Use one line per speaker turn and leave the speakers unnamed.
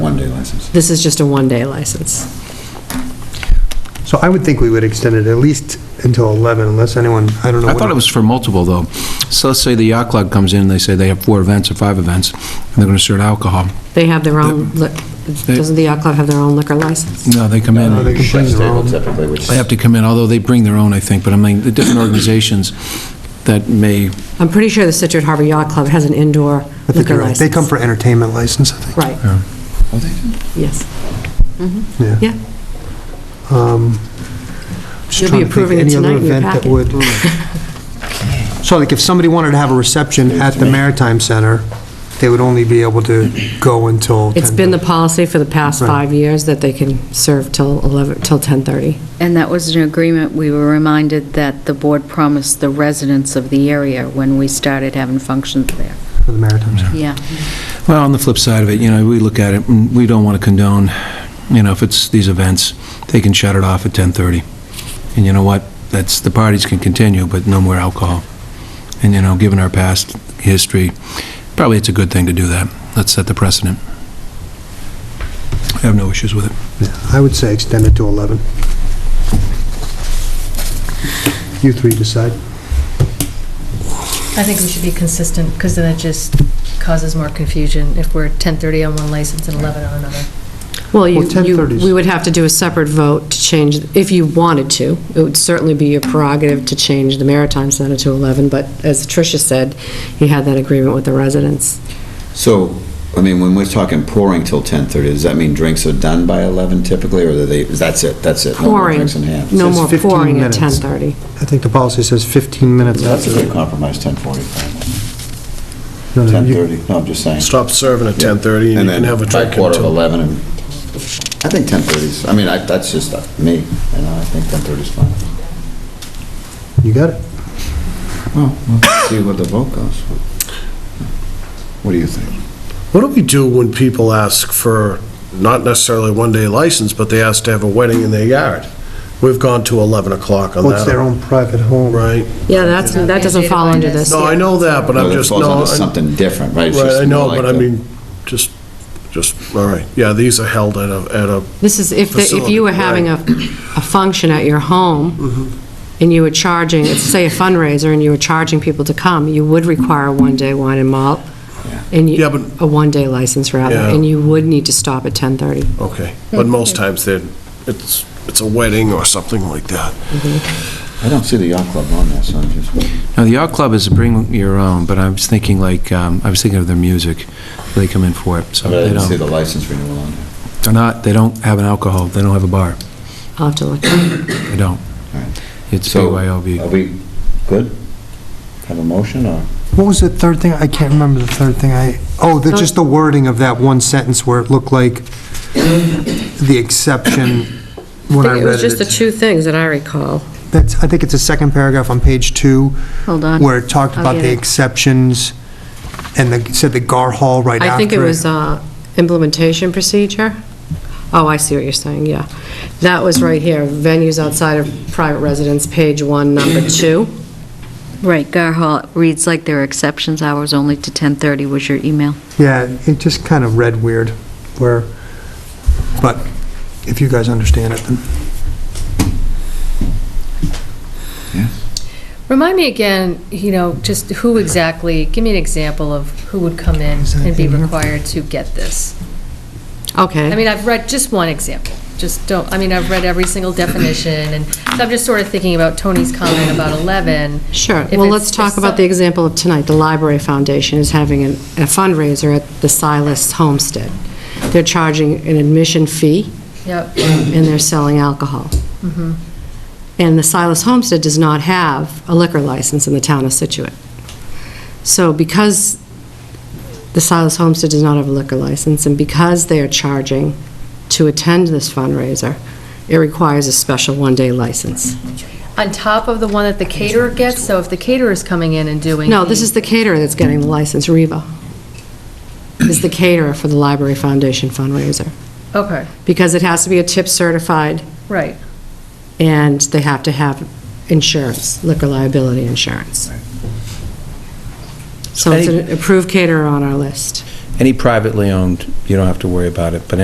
one-day license.
This is just a one-day license.
So I would think we would extend it at least until 11, unless anyone, I don't know.
I
what-
thought it was for multiple, though. So let's say the yacht club comes in, and they say they have four events or five events, and they're going to serve alcohol.
They have their own, li- doesn't the yacht club have their own liquor license?
No, they come in.
No, they can bring
Chef's
their
table
own.
typically, which
They have to come in, although they bring their own, I think, but I mean, the different organizations that may,
I'm pretty sure the Situate Harbor Yacht Club has an indoor
I think
liquor
you're right.
license.
They come for entertainment license, I think,
Right, yes.
yeah.
Yeah.
Um, just
You'll be
trying to think of
approving it
any other
tonight in your
event that
packet.
would- So like if somebody wanted to have a reception at the Maritime Center, they would only be able to go until 10.
It's been the policy for the past
Right.
five years that they can serve till 11, till 10:30.
And that was an agreement, we were reminded that the board promised the residents of the area when we started having functions there.
For the Maritime Center.
Yeah.
well, on the flip side of it, you know, we look at it, and we don't want to condone, you know, if it's these events, they can shut it off at 10:30. And you know what? That's, the parties can continue, but no more alcohol. And, you know, given our past history, probably it's a good thing to do that. Let's set the precedent. I have no issues with it.
Yeah, I would say extend it to 11. You three decide.
I think we should be consistent, because then it just causes more confusion if we're 10:30 on one license and 11 on another.
Well, you,
Well, 10:30
you-
is-
we would have to do a separate vote to change, if you wanted to. It would certainly be your prerogative to change the Maritime Center to 11, but as Tricia said, you had that agreement with the residents.
So, I mean, when we're talking pouring till 10:30, does that mean drinks are done by 11 typically, or are they, that's it, that's it? No more
Pouring,
drinks in hand?
no
Says
more
15
pouring at
minutes.
10:30.
I think the policy says 15 minutes
That's
after.
a good compromise, 10:45,
No, no, you-
10:30, no, I'm just saying.
Stop serving at 10:30 and you can have a
then by
drink
quarter of
until...
11, and, I think 10:30's, I mean, I- that's just uh, me, you know, I think 10:30's fine.
You got it.
Well, we'll see what the vote goes. What do you think?
What do we do when people ask for, not necessarily a one-day license, but they ask to have a wedding in their yard? We've gone to 11 o'clock on that.
Well, it's their own private home.
Right?
Yeah, that's, that doesn't fall under this.
No, I know that, but I'm
Well, it
just,
falls
no,
under
I-
something different, right? It's
right,
just
I know,
more like
but I
the-
mean, just, just, all right. Yeah, these are held at a, at a,
This is, if, the- if you were having a, a function at your home, and you were charging, say a fundraiser, and you were charging people to come, you would require a one-day wine and malt, and you,
Yeah, but-
a one-day license rather,
Yeah.
and you would need to stop at 10:30.
okay. But
Mm-hmm.
most times they're, it's, it's a wedding or something like that.
I don't see the yacht club on there, so I'm just.
Now, the yacht club is bring your own, but I was thinking like, um, I was thinking of their music. They come in for it, so
But I
they
didn't see
don't,
the license renewal on there.
they're not, they don't have an alcohol, they don't have a bar.
I'll have to look.
They don't.
Alright.
It's
So, Are
BYOB.
we good? Have a motion, or?
What was the third thing? I can't remember the third thing I, oh, the- just the wording of that one sentence where it looked like the exception when I
It was
read
just the
it.
two things that I recall.
That's, I think it's the second paragraph on page two,
Hold on.
where it talked
I'll
about
get
the
it.
exceptions, and the, said the Gar Hall right after.
I think it was uh, implementation procedure. Oh, I see what you're saying, yeah. That was right here, venues outside of private residence, page one, number two.
Right, Gar Hall reads like there are exceptions, hours only to 10:30 was your email.
Yeah, it just kind of read weird, where, but if you guys understand it, then.
Remind me again, you know, just who exactly, give me an example of who would come in
Is that
and be
in here?
required to get this. I
Okay.
mean, I've read just one example, just don't, I mean, I've read every single definition, and so I'm just sort of thinking about Tony's comment about 11.
Sure.
If
Well,
it's-
let's talk
if
about the
some-
example of tonight. The Library Foundation is having an- a fundraiser at the Silas Homestead. They're charging an admission fee,
Yep.
and they're selling alcohol.
Mm-hmm.
And the Silas Homestead does not have a liquor license in the town of Situate. So because the Silas Homestead does not have a liquor license, and because they are charging to attend this fundraiser, it requires a special one-day license.
On top of the one that the caterer gets, so if the caterer is coming in and doing.
No, this is the caterer that's getting the license, Reva. Is the caterer for the Library Foundation fundraiser,
Okay,
because it has to be a tip certified,
right.
and they have to have insurance, liquor liability insurance. So it's an approved caterer on our list.
Any privately owned, you don't have to worry about it, but